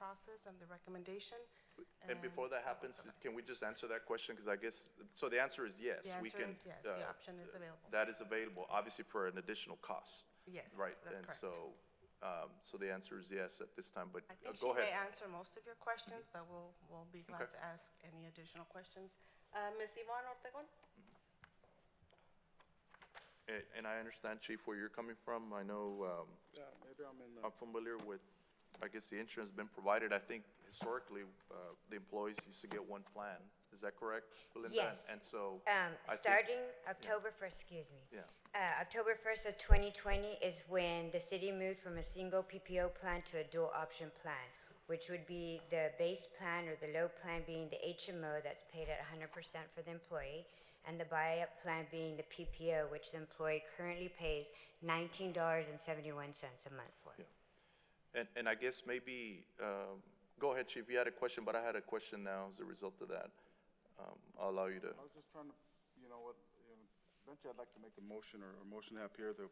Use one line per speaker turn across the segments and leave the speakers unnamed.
analysis and the recommendation.
And before that happens, can we just answer that question? Because I guess, so the answer is yes.
The
we
answer
can,
is yes, the
uh,
option is available.
That is available, obviously for an additional cost.
Yes,
Right,
that's
and
correct.
so, um, so the answer is yes at this time, but
I
uh,
think she
go
may
ahead. Mm-hmm.
answer most of your questions, but we'll, we'll be glad
Okay.
to ask any additional questions. Uh, Ms. Yvonne Ortegon?
And- And I understand, Chief, where you're coming from. I know um,
Yeah, maybe I'm in the,
I'm familiar with, I guess the insurance been provided, I think historically, uh, the employees used to get one plan. Is that correct, Belinda?
Yes.
And so.
Um,
I think-
starting October first, excuse me.
Yeah.
Uh, October first of twenty twenty is when the city moved from a single PPO plan to a dual option plan, which would be the base plan or the low plan being the HMO that's paid at hundred percent for the employee, and the buy-up plan being the PPO, which the employee currently pays nineteen dollars and seventy-one cents a month for.
Yeah. And, and I guess maybe, um, go ahead, Chief, you had a question, but I had a question now as a result of that. Um, I'll allow you to,
I was just trying to, you know, what, you know, eventually I'd like to make a motion or or motion up here that,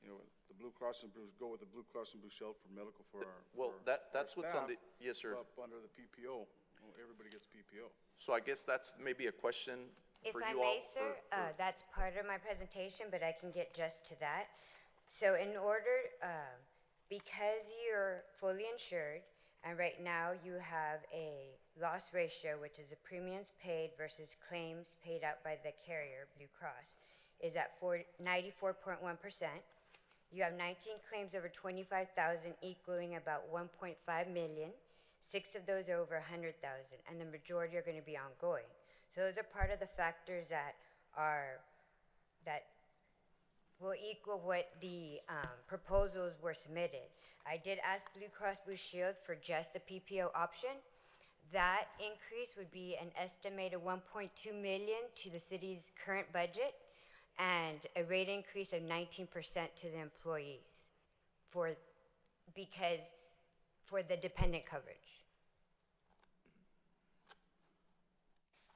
you know, the Blue Cross and Blue, go with the Blue Cross and Blue Shield for medical for our.
Well,
for our-
that-
for
that's
our
what's on
staff,
the- yes, sir.
Up under the PPO, Well, everybody gets PPO.
so I guess that's maybe a question
If
for
I
you all.
may, sir,
or- or-
uh, that's part of my presentation, but I can get just to that. So in order, um, because you're fully insured, and right now you have a loss ratio, which is the premiums paid versus claims paid out by the carrier, Blue Cross, is at four- 94.1%. You have 19 claims over 25,000 equaling about 1.5 million. Six of those are over 100,000, and the majority are going to be ongoing. So those are part of the factors that are that will equal what the um, proposals were submitted. I did ask Blue Cross Blue Shield for just the PPO option. That increase would be an estimated 1.2 million to the city's current budget and a rate increase of 19% to the employees for because for the dependent coverage.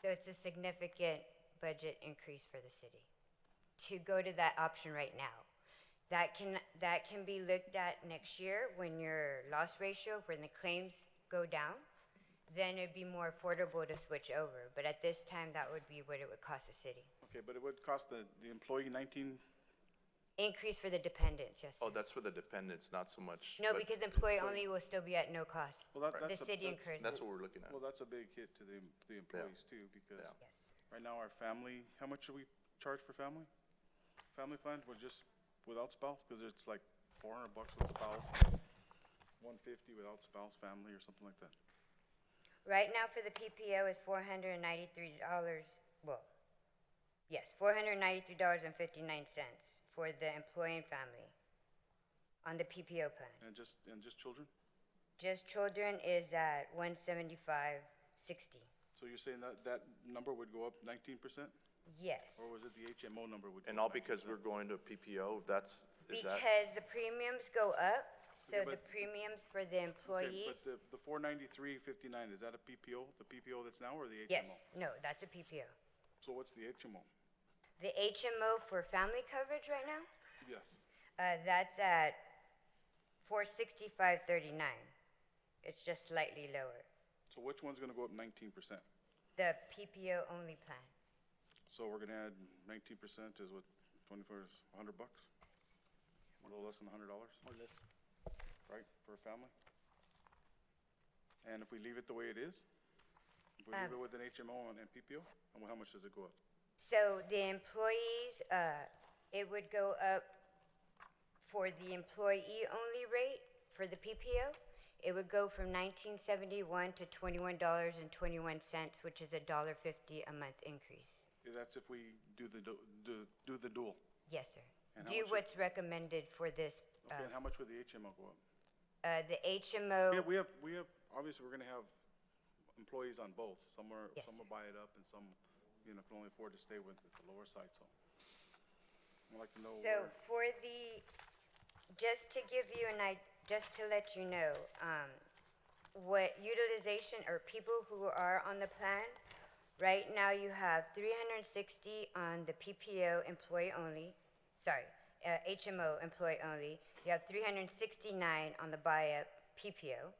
So it's a significant budget increase for the city to go to that option right now. That can, that can be looked at next year when your loss ratio, when the claims go down, then it'd be more affordable to switch over. But at this time, that would be what it would cost the city.
Okay, but it would cost the, the employee nineteen,
Increase for the dependents, yes.
Oh,
sir.
that's for the dependents, not so much.
No,
but
because employee only will still be at no cost.
Well, that-
The
that's a-
city
that's-
incurs,
That's what we're looking at.
well, that's a big hit to the, em- the employees too, because
Yeah.
yes.
right now our family, how much do we charge for family? Family plan, we're just without spouse, because it's like four hundred bucks with spouse, one fifty without spouse, family or something like that.
Right now for the PPO is four hundred and ninety-three dollars, well, yes, four hundred and ninety-three dollars and fifty-nine cents for the employee and family on the PPO plan.
And just, and just children?
Just children is at one seventy-five sixty.
So you're saying that that number would go up nineteen percent?
Yes,
Or was it the HMO number would? go
And all
up
because
19%?
we're going to PPO, that's, is that?
because the premiums go up, so
Okay,
the
but-
premiums for the
Okay,
employees,
But the, the four ninety-three fifty-nine, is that a PPO, the PPO that's now or the HMO?
yes, no, that's a PPO.
So what's the HMO?
The HMO for family coverage right now,
Yes.
Uh, that's at four sixty-five thirty-nine. It's just slightly lower.
So which one's gonna go up nineteen percent?
The PPO only plan.
So we're gonna add nineteen percent is what, twenty-four is a hundred bucks? A little less than a hundred dollars? Or less. Right, for a family? And if we leave it the way it is? If we leave
Um,
it with an HMO and and PPO, and how much does it go up?
So the employees, uh, it would go up for the employee only rate for the PPO. It would go from nineteen seventy-one to twenty-one dollars and twenty-one cents, which is a dollar fifty a month increase.
That's if we do the, du- do, do the dual.
Yes, sir.
And how
Do
much it-
what's recommended for this, uh,
Okay, and how much would the HMO go up?
uh, the
Yeah,
HMO,
we have, we have, obviously, we're gonna have employees on both. Some are,
Yes,
some will
sir.
buy it up and some, you know, can only afford to stay with it, the lower side, so. I'd like to know
So
where,
for the, just to give you an I, just to let you know, um, what utilization or people who are on the plan, right now you have three hundred and sixty on the PPO employee only, sorry, uh, HMO employee only. You have three hundred and sixty-nine on the buy-up PPO.